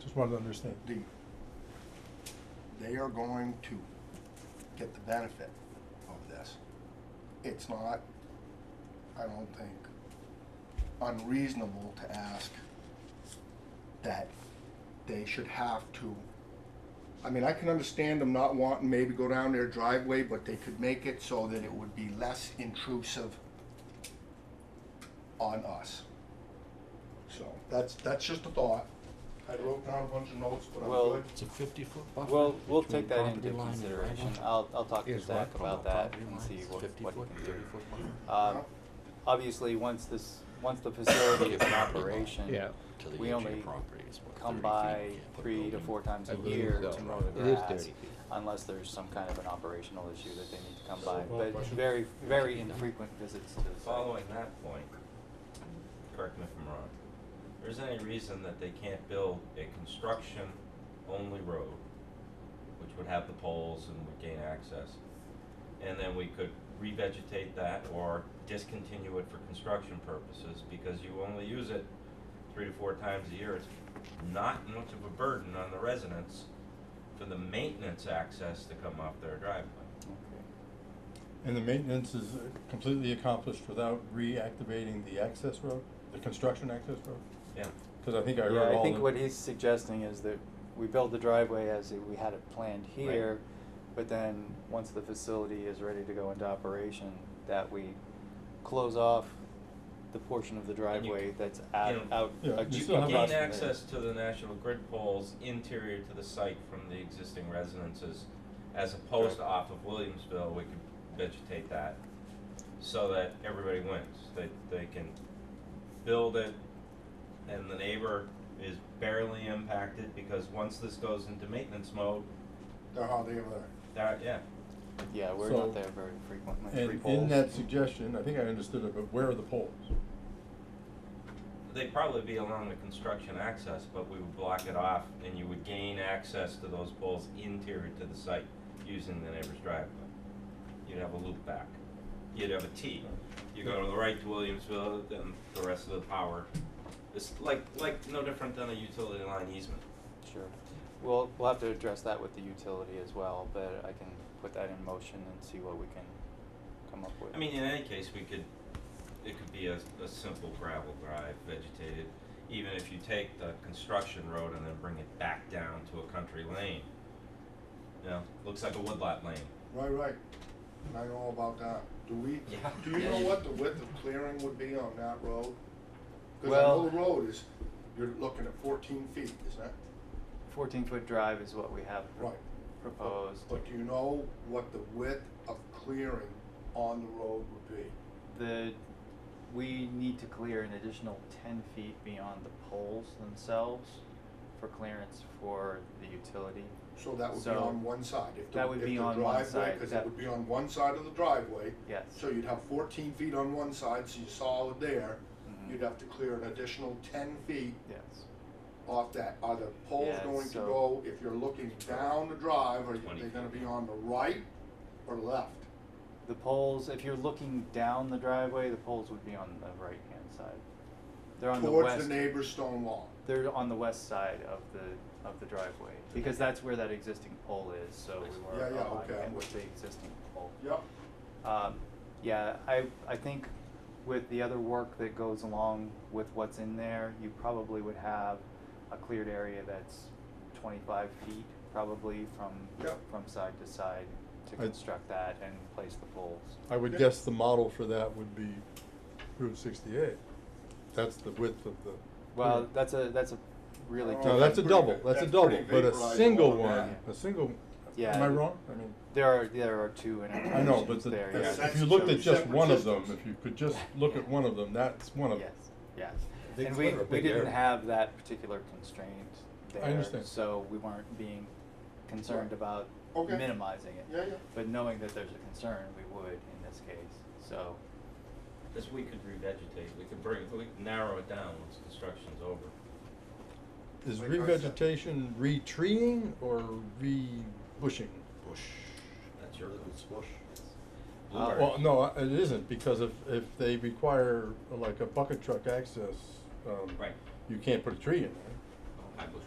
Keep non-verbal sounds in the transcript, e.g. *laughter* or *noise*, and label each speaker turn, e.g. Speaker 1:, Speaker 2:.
Speaker 1: just wanted to understand.
Speaker 2: the, they are going to get the benefit of this. It's not, I don't think, unreasonable to ask that they should have to. I mean, I can understand them not wanting maybe go down their driveway, but they could make it so that it would be less intrusive on us. So, that's, that's just a thought. I wrote down a bunch of notes, but I'm
Speaker 3: Well,
Speaker 2: good.
Speaker 4: It's a fifty-foot buffer.
Speaker 3: Well, we'll
Speaker 4: between
Speaker 3: take that into
Speaker 4: property line and
Speaker 3: consideration.
Speaker 4: driveway.
Speaker 3: I'll, I'll talk to
Speaker 4: Is
Speaker 3: Zach about
Speaker 4: what? From our
Speaker 3: that
Speaker 4: property
Speaker 3: and
Speaker 4: line,
Speaker 3: see
Speaker 4: it's
Speaker 3: what, what he
Speaker 4: 50-foot,
Speaker 3: can do.
Speaker 4: 30-foot buffer.
Speaker 3: Um, obviously, once this, once the facility is
Speaker 4: *coughs*
Speaker 3: in operation,
Speaker 5: Yeah.
Speaker 4: To the
Speaker 3: we
Speaker 4: edge of
Speaker 3: only
Speaker 4: your property is what,
Speaker 3: come
Speaker 4: 30 feet?
Speaker 3: by
Speaker 4: You can't put a
Speaker 3: three to
Speaker 4: building
Speaker 3: four times
Speaker 5: I
Speaker 3: a
Speaker 5: believe
Speaker 3: year
Speaker 5: so.
Speaker 3: to mow the
Speaker 5: It is
Speaker 3: grass,
Speaker 5: 30 feet.
Speaker 3: unless there's some kind of an operational issue that they need to come
Speaker 6: So,
Speaker 3: by,
Speaker 6: one
Speaker 3: but
Speaker 6: question.
Speaker 3: very, very infrequent visits to the site.
Speaker 6: Following that point, correct me if I'm wrong, there's any reason that they can't build a construction-only road, which would have the poles and would gain access, and then we could revegetate that or discontinue it for construction purposes, because you only use it three to four times a year, it's not much of a burden on the residents for the maintenance access to come off their driveway.
Speaker 3: Okay.
Speaker 1: And the maintenance is completely accomplished without reactivating the access road, the construction access road?
Speaker 6: Yeah.
Speaker 1: Cause I think I heard all
Speaker 3: Yeah,
Speaker 1: the.
Speaker 3: I think what he's suggesting is that we build the driveway as if we had it planned
Speaker 6: Right.
Speaker 3: here, but then, once the facility is ready to go into operation, that we close off the portion of the
Speaker 6: And you
Speaker 3: driveway
Speaker 6: can-
Speaker 3: that's
Speaker 6: you
Speaker 3: out,
Speaker 6: know,
Speaker 3: out.
Speaker 1: Yeah,
Speaker 3: ac-
Speaker 1: you
Speaker 6: You
Speaker 1: still
Speaker 6: can
Speaker 1: have
Speaker 3: across
Speaker 6: gain
Speaker 3: from there.
Speaker 6: access to the national grid poles interior to the site from the existing residences, as opposed to off of Williamsville, we could vegetate that, so that everybody wins, they, they can build it, and the neighbor is barely impacted, because once this goes into maintenance mode,
Speaker 2: They're how they were.
Speaker 6: that, yeah,
Speaker 3: Yeah, we're
Speaker 1: So-
Speaker 3: not there very frequently, three
Speaker 1: And
Speaker 3: poles.
Speaker 1: in that suggestion, I think I understood it, but where are the poles?
Speaker 6: They'd probably be along the construction access, but we would block it off and you would gain access to those poles interior to the site using the neighbor's driveway. You'd have a loop back. You'd have a T. You go to the right to Williamsville, then the rest of the power. It's like, like no different than a utility line easement.
Speaker 3: Sure. We'll, we'll have to address that with the utility as well, but I can put that in motion and see what we can come up with.
Speaker 6: I mean, in any case, we could, it could be a, a simple gravel drive, vegetated, even if you take the construction road and then bring it back down to a country lane. You know, looks like a woodlot lane.
Speaker 2: Right, right. And I know about that. Do we,
Speaker 6: Yeah.
Speaker 2: do you
Speaker 6: Yeah,
Speaker 2: know
Speaker 6: you-
Speaker 2: what the width of clearing would be on that road? Cause I
Speaker 3: Well-
Speaker 2: know the road is, you're looking at fourteen feet, isn't it?
Speaker 3: Fourteen foot drive is what we have
Speaker 2: Right.
Speaker 3: proposed.
Speaker 2: But do you know what the width of clearing on the road would be?
Speaker 3: The, we need to clear an additional ten feet beyond the poles themselves for clearance for the utility.
Speaker 2: So that would be
Speaker 3: So,
Speaker 2: on one side. If the-
Speaker 3: that would
Speaker 2: if
Speaker 3: be
Speaker 2: the
Speaker 3: on one
Speaker 2: driveway-
Speaker 3: side,
Speaker 2: Cause it
Speaker 3: that-
Speaker 2: would be on one side of the driveway.
Speaker 3: Yes.
Speaker 2: So you'd have fourteen feet on one side, so you're solid there.
Speaker 3: Mhm.
Speaker 2: You'd have to clear an additional ten feet
Speaker 3: Yes.
Speaker 2: off that, are the poles
Speaker 3: Yeah,
Speaker 2: going to
Speaker 3: so-
Speaker 2: go, if you're looking down the drive, are
Speaker 6: Twenty
Speaker 2: they gonna
Speaker 6: feet.
Speaker 2: be on the right or left?
Speaker 3: The poles, if you're looking down the driveway, the poles would be on the right hand side. They're on the
Speaker 2: Towards
Speaker 3: west,
Speaker 2: the neighbor's stone wall.
Speaker 3: they're on the west side of the, of the driveway, because that's where that existing pole is, so we were
Speaker 2: Yeah, yeah,
Speaker 3: aligning
Speaker 2: okay,
Speaker 3: it
Speaker 2: I'm
Speaker 3: with
Speaker 2: with
Speaker 3: the existing pole.
Speaker 2: Yep.
Speaker 3: Um, yeah, I, I think with the other work that goes along with what's in there, you probably would have a cleared area that's twenty-five feet, probably from,
Speaker 2: Yep.
Speaker 3: from side to side to
Speaker 1: I- Uh,
Speaker 3: construct that and place the poles.
Speaker 1: I would guess the model for that would be Route sixty-eight. That's the width of the.
Speaker 3: Well, that's a, that's a
Speaker 2: No,
Speaker 3: really.
Speaker 1: No,
Speaker 3: different-
Speaker 1: that's a
Speaker 2: pretty
Speaker 1: double,
Speaker 2: va-
Speaker 1: that's a
Speaker 2: that's
Speaker 1: double,
Speaker 2: pretty
Speaker 1: but a
Speaker 2: vaporized
Speaker 1: single
Speaker 2: along
Speaker 1: one,
Speaker 3: that.
Speaker 1: a single,
Speaker 3: Yeah.
Speaker 1: am I wrong? I mean,
Speaker 3: There are, there are two
Speaker 1: I know, but
Speaker 3: intersections
Speaker 1: the-
Speaker 3: there,
Speaker 2: Yeah,
Speaker 3: yes.
Speaker 1: if
Speaker 2: that's
Speaker 1: you looked
Speaker 2: two
Speaker 1: at just
Speaker 2: separate
Speaker 1: one of them,
Speaker 2: systems.
Speaker 1: if you could just look at one of them, that's one of them.
Speaker 3: Yes, yes.
Speaker 5: I think
Speaker 3: And
Speaker 5: it's
Speaker 3: we,
Speaker 5: kind of a
Speaker 3: we
Speaker 5: big
Speaker 3: didn't
Speaker 5: area.
Speaker 3: have that particular constraint there.
Speaker 1: understand.
Speaker 3: So we weren't being concerned
Speaker 2: Right.
Speaker 3: about
Speaker 2: Okay.
Speaker 3: minimizing it.
Speaker 2: Yeah, yeah.
Speaker 3: But knowing that there's a concern, we would in this case, so.
Speaker 6: This we could revegetate, we could bring, we could narrow it down once construction's over.
Speaker 1: Is
Speaker 2: Like I said.
Speaker 1: revegetation retreeing or rebushing?
Speaker 4: Bush.
Speaker 6: That's your
Speaker 4: It's bush.
Speaker 3: Uh,
Speaker 1: Well, no, uh, it isn't, because if, if they require uh, like a bucket truck access, um,
Speaker 6: Right.
Speaker 1: you can't put a tree in there.
Speaker 4: I bush,